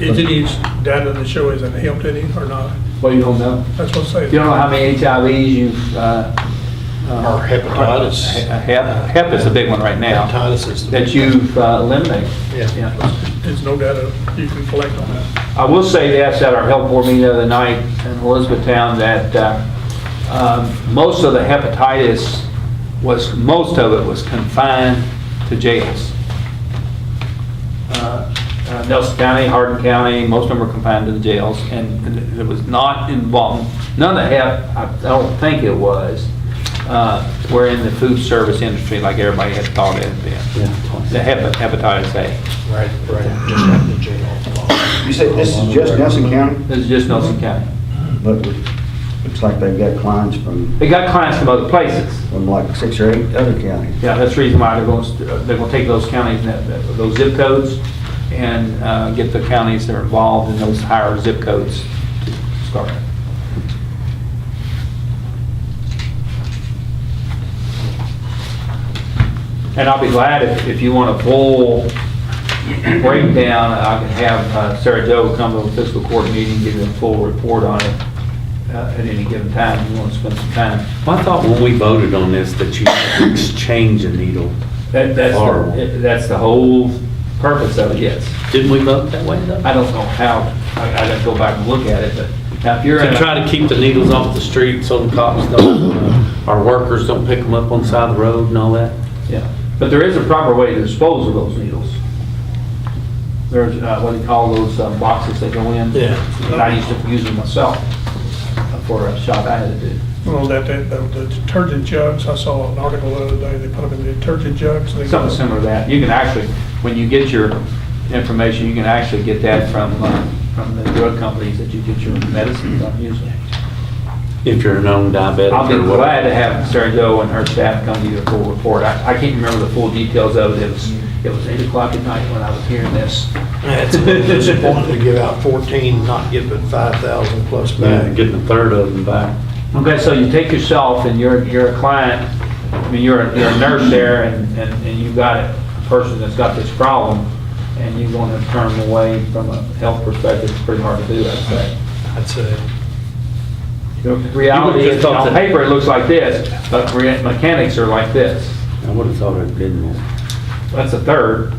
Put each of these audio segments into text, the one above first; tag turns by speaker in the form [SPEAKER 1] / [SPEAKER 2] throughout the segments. [SPEAKER 1] Is any data that shows in Hampton or not?
[SPEAKER 2] What you don't know?
[SPEAKER 1] That's what I'm saying.
[SPEAKER 2] You don't know how many HIVs you've, uh. uh,
[SPEAKER 3] Or hepatitis.
[SPEAKER 2] he- Hep, hep is a big one right now.
[SPEAKER 3] Hepatitis is the-
[SPEAKER 2] That you've uh, eliminated.
[SPEAKER 3] Yeah.
[SPEAKER 1] There's no data you can collect on that.
[SPEAKER 2] I will say this at our health board meeting the other night in Elizabethtown, that uh, um, most of the hepatitis was, most of it was confined to jails. Uh, uh, Nelson County, Hardin County, most of them were confined to the jails, and it was not involved, none of the hep, I don't think it was, uh, were in the food service industry like everybody had thought it had been. The hep- hepatitis A,
[SPEAKER 3] Right, right, just out of the jail.
[SPEAKER 4] You said this is just Nelson County,
[SPEAKER 2] this is just Nelson County.
[SPEAKER 4] but looks like they've got clients from,
[SPEAKER 2] They got clients from other places.
[SPEAKER 4] from like six or eight other counties.
[SPEAKER 2] Yeah, that's the reason why they're going, they're going to take those counties, and that- those zip codes, and uh, get the counties that are involved in those higher zip codes to start. And I'll be glad if, if you want a full breakdown, I can have uh, Sarah Jo come to a fiscal court meeting, give you a full report on it uh, at any given time, if you want to spend some time.
[SPEAKER 5] I thought when we voted on this that you had to exchange a needle.
[SPEAKER 2] That, that's,
[SPEAKER 5] Horrible.
[SPEAKER 2] the- that's the whole purpose of it, yes.
[SPEAKER 5] Didn't we vote that way though?
[SPEAKER 2] I don't know how, I, I didn't go back and look at it, but now if you're in.
[SPEAKER 5] To
[SPEAKER 2] a-
[SPEAKER 5] try to keep the needles off the street so the cops don't, uh, our workers don't pick them up on the side of the road and all that.
[SPEAKER 2] Yeah, but there is a proper way to dispose of those needles. There's, uh, what do you call those uh, boxes that go in?
[SPEAKER 3] Yeah.
[SPEAKER 2] And I used to use them myself for a shop I had to do.
[SPEAKER 1] Well, that, that, the detergent jugs, I saw an article the other day, they put them in detergent jugs. they-
[SPEAKER 2] Something similar to that. You can actually, when you get your information, you can actually get that from, uh, from the drug companies that you get your medicines on usually.
[SPEAKER 5] If you're a known diabetic
[SPEAKER 2] I'll be
[SPEAKER 5] or
[SPEAKER 2] glad to
[SPEAKER 5] whatever.
[SPEAKER 2] have Sarah Jo and her staff come to you a full report. I, I can't remember the full details of it. It was, it was eight o'clock at night when I was hearing this.
[SPEAKER 3] It's disappointing to give out 14, not give it 5,000 plus
[SPEAKER 5] Yeah,
[SPEAKER 3] back.
[SPEAKER 5] Getting a third of them back.
[SPEAKER 2] Okay, so you take yourself and you're, you're a client, I mean, you're, a- you're a nurse there and, and and you've got a person that's got this problem and you want to turn them away from a health perspective, it's pretty hard to do, I'd say.
[SPEAKER 4] Mm-hmm.
[SPEAKER 3] That's it.
[SPEAKER 2] The Reality is, on paper, it looks like this, but rea- mechanics are like this.
[SPEAKER 5] I would have thought it'd been more.
[SPEAKER 2] That's a third.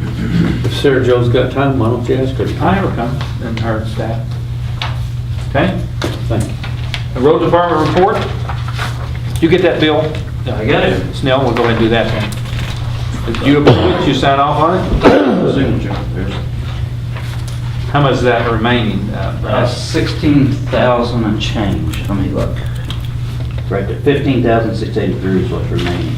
[SPEAKER 5] If Sarah Jo's got time, why don't you ask her? to come?
[SPEAKER 2] I never come and her staff. Okay?
[SPEAKER 5] Thank you.
[SPEAKER 2] The road department report? You get that, Bill? I got
[SPEAKER 5] it.
[SPEAKER 2] Snell, we'll go ahead and do that then. If you approve it, you sign off on it? Signature. How much is that remaining? Uh, that's-
[SPEAKER 6] That's 16,000 and change, let me look. Right there, 15,683 is what's remaining.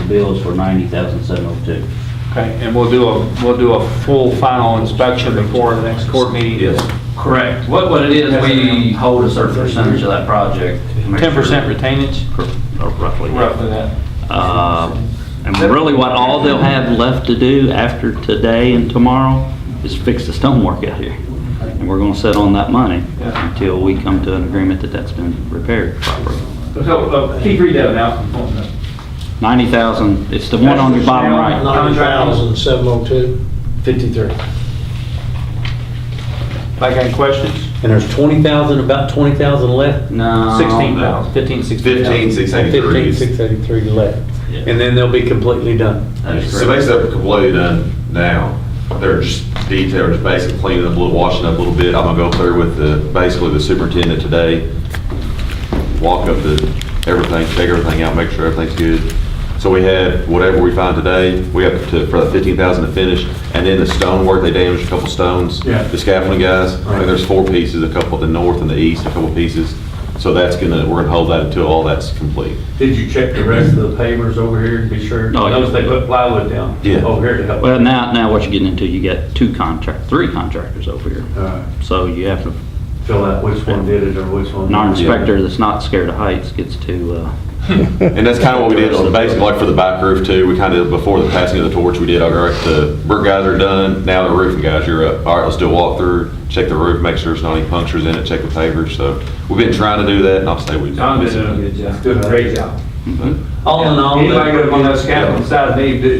[SPEAKER 6] The bill is for 90,702.
[SPEAKER 2] Okay, and we'll do a, we'll do a full final inspection before the next court meeting?
[SPEAKER 5] Yes.
[SPEAKER 6] Correct. What, what it is, we hold a certain percentage of that project. to make
[SPEAKER 2] Ten percent
[SPEAKER 6] sure-
[SPEAKER 2] retainage,
[SPEAKER 6] or Roughly.
[SPEAKER 2] roughly that.
[SPEAKER 6] Uh, And really what all they'll have left to do after today and tomorrow is fix the stonework out here. And we're gonna sit on that money
[SPEAKER 2] Yeah.
[SPEAKER 6] until we come to an agreement that that's been repaired properly.
[SPEAKER 2] So, uh, Keith, read that one out.
[SPEAKER 6] 90,000, it's the one on your bottom right.
[SPEAKER 3] 9,702?
[SPEAKER 5] 53.
[SPEAKER 2] Like, any questions?
[SPEAKER 5] And there's 20,000, about 20,000 left?
[SPEAKER 6] No.
[SPEAKER 2] 16,000, 15, 16,000.
[SPEAKER 7] 15, 683 is-
[SPEAKER 5] 15,683 left.
[SPEAKER 6] Yeah.
[SPEAKER 5] And then they'll be completely done.
[SPEAKER 6] That is
[SPEAKER 7] So
[SPEAKER 6] correct.
[SPEAKER 7] basically, they're completely done now. They're just detailed, just basically cleaning up a little, washing up a little bit. I'm gonna go through with the, basically the superintendent today, walk up the, everything, check everything out, make sure everything's good. So we have whatever we find today, we have to, for the 15,000 to finish, and then the stone work, they damaged a couple stones.
[SPEAKER 5] Yeah.
[SPEAKER 7] The scaffolding guys, I think there's four pieces, a couple at the north and the east, a couple pieces. So that's gonna, we're gonna hold that until all that's complete.
[SPEAKER 5] Did you check the rest of the pavers over here to be sure?
[SPEAKER 6] Oh, yeah.
[SPEAKER 5] Notice they put plywood down
[SPEAKER 7] Yeah.
[SPEAKER 5] over Oh, here to help.
[SPEAKER 6] Well, now, now what you're getting into, you got two contract, three contractors over here.
[SPEAKER 2] Oh.
[SPEAKER 5] Alright.
[SPEAKER 6] So you have to,
[SPEAKER 5] Fill out which one did it or which one.
[SPEAKER 6] an inspector that's not scared of heights gets to, uh,
[SPEAKER 7] And that's kind of what we did, on- basically like for the back roof too, we kind of, before the passing of the torch, we did, all right, the brick guys are done, now the roofing guys, you're up. All right, let's do a walkthrough, check the roof, make sure there's not any punctures in it, check the pavers, so we've been trying to do that, and I'll say we've.
[SPEAKER 2] uh, John did a good job.
[SPEAKER 5] Good.
[SPEAKER 2] Great job.
[SPEAKER 5] All in all.
[SPEAKER 2] Anybody go on that scaffold side, they do,